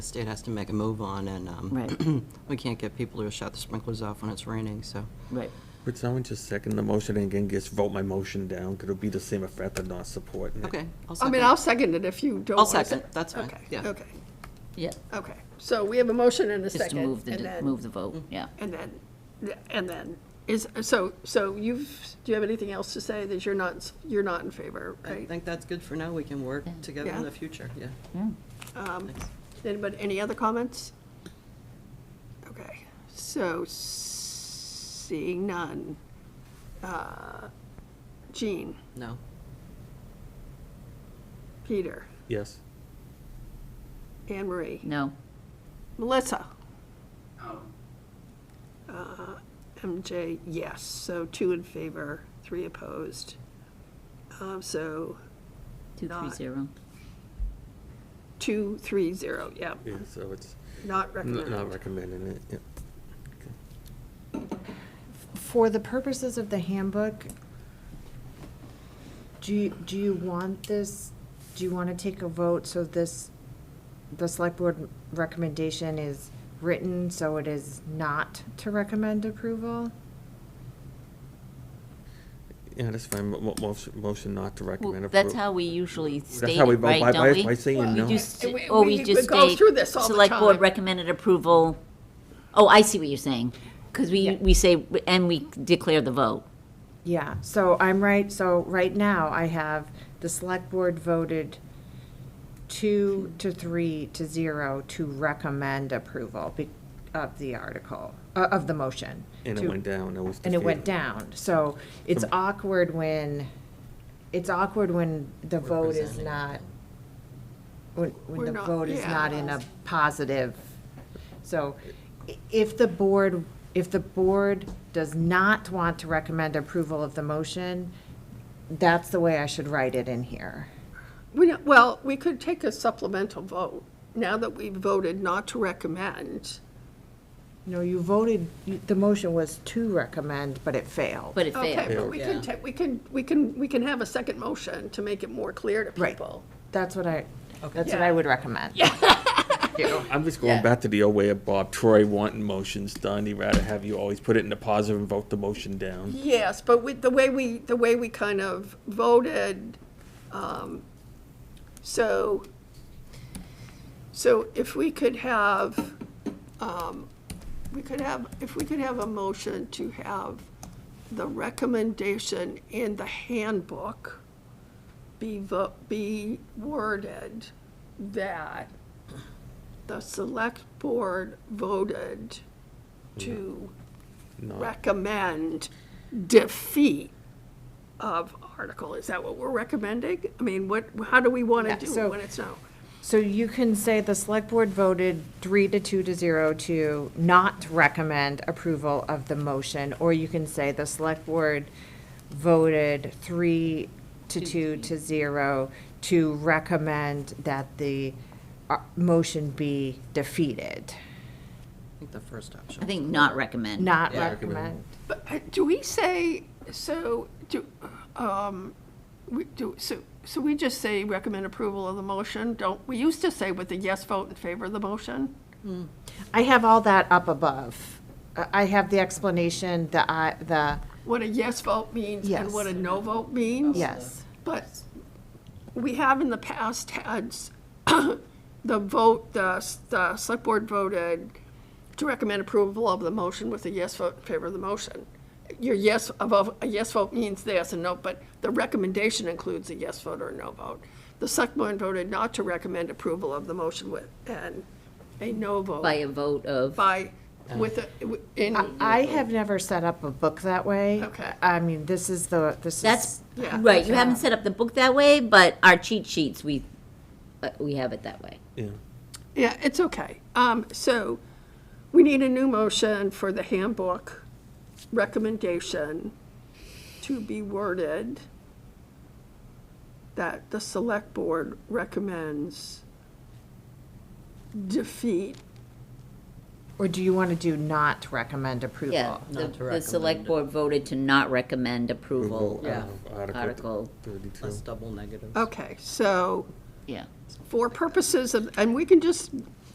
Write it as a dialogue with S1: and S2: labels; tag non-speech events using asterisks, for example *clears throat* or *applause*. S1: The state has to make a move on, and
S2: Right.
S1: um, *clears throat* we can't get people to shut the sprinklers off when it's raining, so.
S2: Right.
S3: Could someone just second the motion and again just vote my motion down? Could it be the same effect of not supporting it?
S1: Okay, I'll
S4: I
S1: second.
S4: mean, I'll second it if you don't
S1: I'll
S4: want to.
S1: second. That's fine. Yeah.
S4: Okay, okay,
S2: Yeah,
S4: okay. So we have a motion and a
S2: just to
S4: second.
S2: move
S4: and
S2: the,
S4: then- Mm.
S2: move the vote, yeah.
S4: And then, and then, is, so, so you've, do you have anything else to say that you're not, you're not in favor,
S1: I
S4: right?
S1: think that's good for now. We can work together
S4: Yeah.
S1: in the future, yeah. Thanks.
S4: Um, Anybody, any other comments? Okay, so seeing none. Uh, Jean,
S1: No.
S4: Peter,
S3: Yes.
S4: Anne Marie,
S2: No,
S4: Melissa? Uh, MJ, yes, so two in favor, three opposed. Um, So
S2: two, three,
S4: Not.
S2: zero.
S4: two, three, zero, yeah,
S3: Yeah, so it's
S4: not
S3: n- not
S4: recommended.
S3: recommending it, yeah.
S5: For the purposes of the handbook, do, you- do you want this, do you want to take a vote so this, the select board recommendation is written, so it is not to recommend approval?
S3: Yeah, that's fine, Mo- mo- motion, motion not to recommend.
S2: Well, that's
S3: appro-
S2: how we usually
S3: That's
S2: state
S3: how we
S2: it,
S3: vote, by,
S2: right,
S3: by,
S2: don't we?
S3: by saying
S2: You
S3: no.
S2: just,
S4: And we-
S2: or we
S4: we-
S2: just
S4: we go
S2: state.
S4: through this all the
S2: Select board
S4: time.
S2: recommended approval. Oh, I see what you're saying, because we, we say, and we declare the vote.
S5: Yeah, so I'm right, so right now I have the select board voted two to three to zero to recommend approval be- of the article, uh, of the motion.
S3: And it
S5: to-
S3: went down, that was the
S5: and it went
S3: feeling.
S5: down. So it's awkward when, it's awkward when the vote is
S1: Representing.
S5: not, when, when
S4: We're
S5: the
S4: not-
S5: vote is
S4: yeah.
S5: not in a positive. So i- if the board, if the board does not want to recommend approval of the motion, that's the way I should write it in here.
S4: We don't- Well, we could take a supplemental vote, now that we've voted not to recommend.
S5: No, you voted, you- the motion was to recommend, but it failed.
S2: But it
S4: Okay,
S2: failed.
S4: but we can, ta- we can, we can, we can have a second motion to make it more clear to
S5: Right.
S4: people.
S5: That's what I, that's what I
S4: Yeah.
S5: would recommend.
S3: I'm just going back to the old way of Bob Troy wanting motions done. He'd rather have you always put it in the positive and vote the motion down.
S4: Yes, but with, the way we, the way we kind of voted, um, so, so if we could have, um, we could have, if we could have a motion to have the recommendation in the handbook be vo, be worded that the select board voted to
S3: No,
S4: recommend defeat of article. Is that what we're recommending? I mean, what, how do we want
S5: Yeah,
S4: to do
S5: so-
S4: it when it's no?
S5: So you can say the select board voted three to two to zero to not recommend approval of the motion, or you can say the select board voted three to two to zero to recommend that the uh, motion be defeated,
S1: I think the first option.
S2: I think not recommend.
S5: not
S1: Yeah.
S5: recommend.
S4: But uh, do we say, so, do, um, we do, so, so we just say recommend approval of the motion? Don't, we used to say with a yes vote in favor of the motion?
S5: I have all that up above. I I have the explanation, the, I- the,
S4: What a yes vote means and what a
S5: Yes.
S4: no vote means?
S5: yes.
S4: But we have in the past had s- *coughs* the vote, the, s- the select board voted to recommend approval of the motion with a yes vote in favor of the motion. Your yes, above, a yes vote means yes and no, but the recommendation includes a yes vote or a no vote. The select board voted not to recommend approval of the motion with, and a no
S2: By a Uh,
S4: vote
S2: vote of,
S4: by, with, a- w- in,
S5: I- I have never set up a book that way.
S4: Okay.
S5: I mean, this is the, this is.
S2: that's,
S4: Yeah.
S2: right, you haven't set up the book that way, but our cheat sheets, we, uh, we have it that way.
S3: yeah.
S4: yeah, it's okay. Um, so we need a new motion for the handbook recommendation to be worded that the select board recommends defeat.
S5: Or do you want to do not recommend approval?
S2: Yeah, the,
S1: Not to
S2: the select
S1: recommend.
S2: board voted to not recommend approval
S1: Yeah.
S3: of Article
S2: Article.
S3: thirty-two.
S4: Oh,
S1: Less double negatives.
S4: Okay, so
S2: Yeah.
S4: for purposes of, and we can just